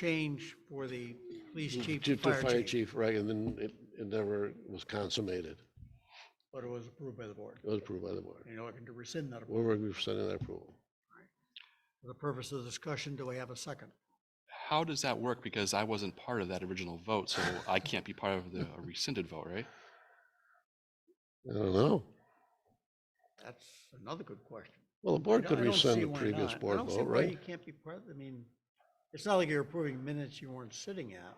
change for the police chief Mm, To and to fire fire chief, chief, right, and then it, it never was consummated. but it was approved by the board. It was approved by the board. You're looking to rescind that approval. We're rescinding that approval. For the purpose of discussion, do I have a second? How does that work? Because I wasn't part of that original vote, so I can't be part of the rescinded vote, right? I don't know. That's another good question. Well, the board could I don't see rescind the why previous not. board I don't see vote, why you right? can't be part, I mean, it's not like you're approving minutes you weren't sitting at.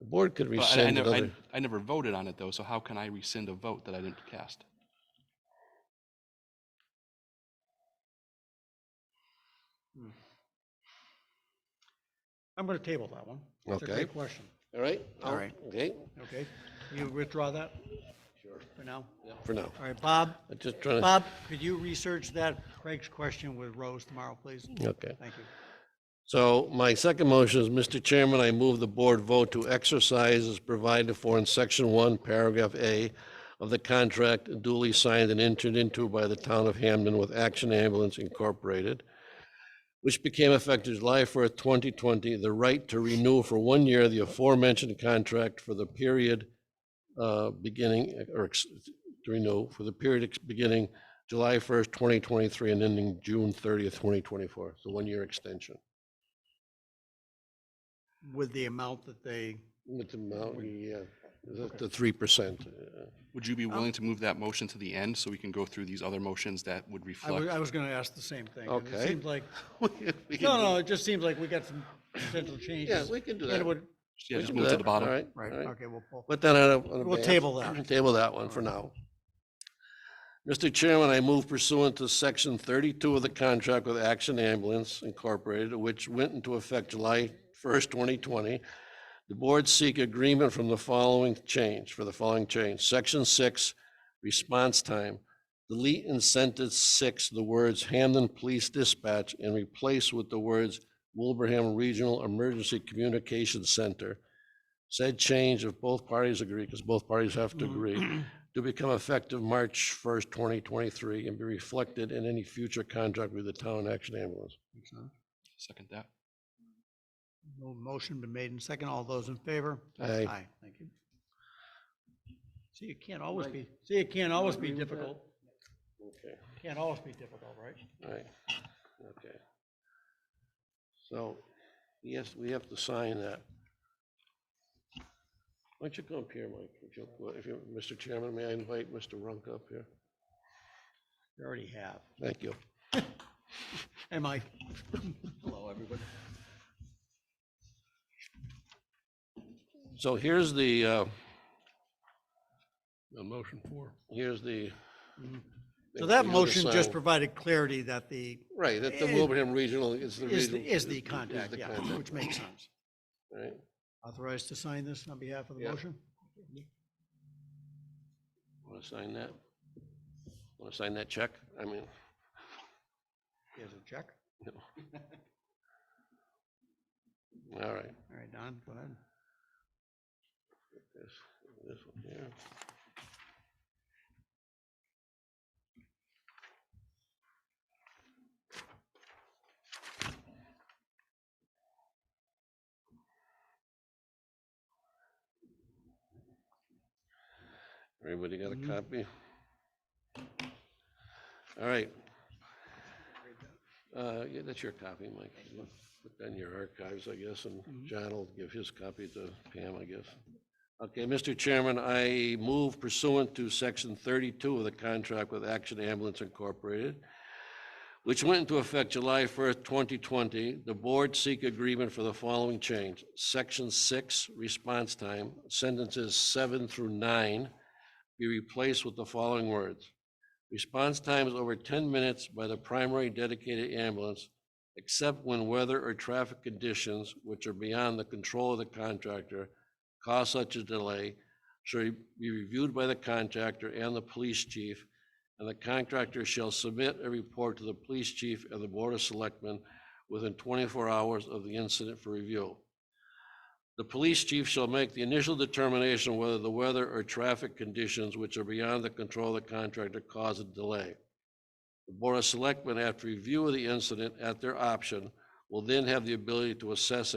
The board could But I- I rescind never, I another, I never voted on it, though, so how can I rescind a vote that I didn't cast? I'm gonna table that one. It's a Okay. great question, all right? All I'll- right. Okay, okay? You withdraw that? Sure. For now? for now. All right, Bob, I'm just trying to, Bob, could you research that Craig's question with Rose tomorrow, please? okay. Thank you. So my second motion is, Mr. Chairman, I move the board vote to exercise as provided for in section one, paragraph A of the contract duly signed and entered into by the town of Hamden with Action Ambulance Incorporated, which became effective July first, twenty twenty, the right to renew for one year the aforementioned contract for the period uh, beginning, or ex- to renew for the period ex- beginning July first, twenty twenty-three and ending June thirtieth, twenty twenty-four, so one-year extension. With the amount that they, With the mountain, yeah, the- the three percent. Would Um, you be willing to move that motion to the end so we can go through these other motions that would I was, reflect? I was gonna ask the same thing. and It Okay. seems like, no, no, it just seems like we got some potential changes. we can do And that. it would- Yeah, We just can move do it to that, the bottom. All right, all Right, right. okay, we'll pull. Put that on a. on a We'll ban- table that. Table that one for now. Mr. Chairman, I move pursuant to section thirty-two of the contract with Action Ambulance Incorporated, which went into effect July first, twenty twenty. The board seek agreement from the following change, for the following change, section six, response time. Delete in sentence six the words Hamden Police Dispatch and replace with the words Wilbraham Regional Emergency Communications Center. Said change, if both parties agree, because both parties have to agree, to become effective March 1st, 2023, and be reflected in any future contract with the town action ambulance. Second that. No Motion been made and second. All those in favor? Aye. Thank you. See, it can't always be, see, it can't always be difficult. Okay, Can't always be difficult, right? all right, okay. So, yes, we have to sign that. Why don't you come up here, Mike, if you, if you, Mr. Chairman, may I invite Mr. Runk up here? You already have. Thank you. Hey, Mike. Hello, everybody. So here's the, uh, motion for. Here's the. So that Here's the motion just sign. provided clarity that the, Right, that's the it- Wilbraham Regional, it's the is, the- regional. is the is contact, the yeah, contact, which makes sense. right. Authorized to sign this on behalf of the Yeah. motion? Want to sign that? Want to sign that check? I mean, Here's a check. no. All right, All right, Don, go ahead. this, this one here. Everybody got a copy? All right. Uh, yeah, that's your copy, Mike. Put that in your archives, I guess, and John will give his copy to Pam, I guess. Okay, Mr. Chairman, I move pursuant to section thirty-two of the contract with Action Ambulance Incorporated, which went into effect July first, twenty twenty, the board seek agreement for the following change. Section six, response time, sentences seven through nine be replaced with the following words. Response time is over ten minutes by the primary dedicated ambulance, except when weather or traffic conditions which are beyond the control of the contractor cause such a delay shall be reviewed by the contractor and the police chief, and the contractor shall submit a report to the police chief and the board of selectmen within twenty-four hours of the incident for review. The police chief shall make the initial determination whether the weather or traffic conditions which are beyond the control of the contractor cause a delay. The Board of Selectmen, after review of the incident at their option, will then have the ability to assess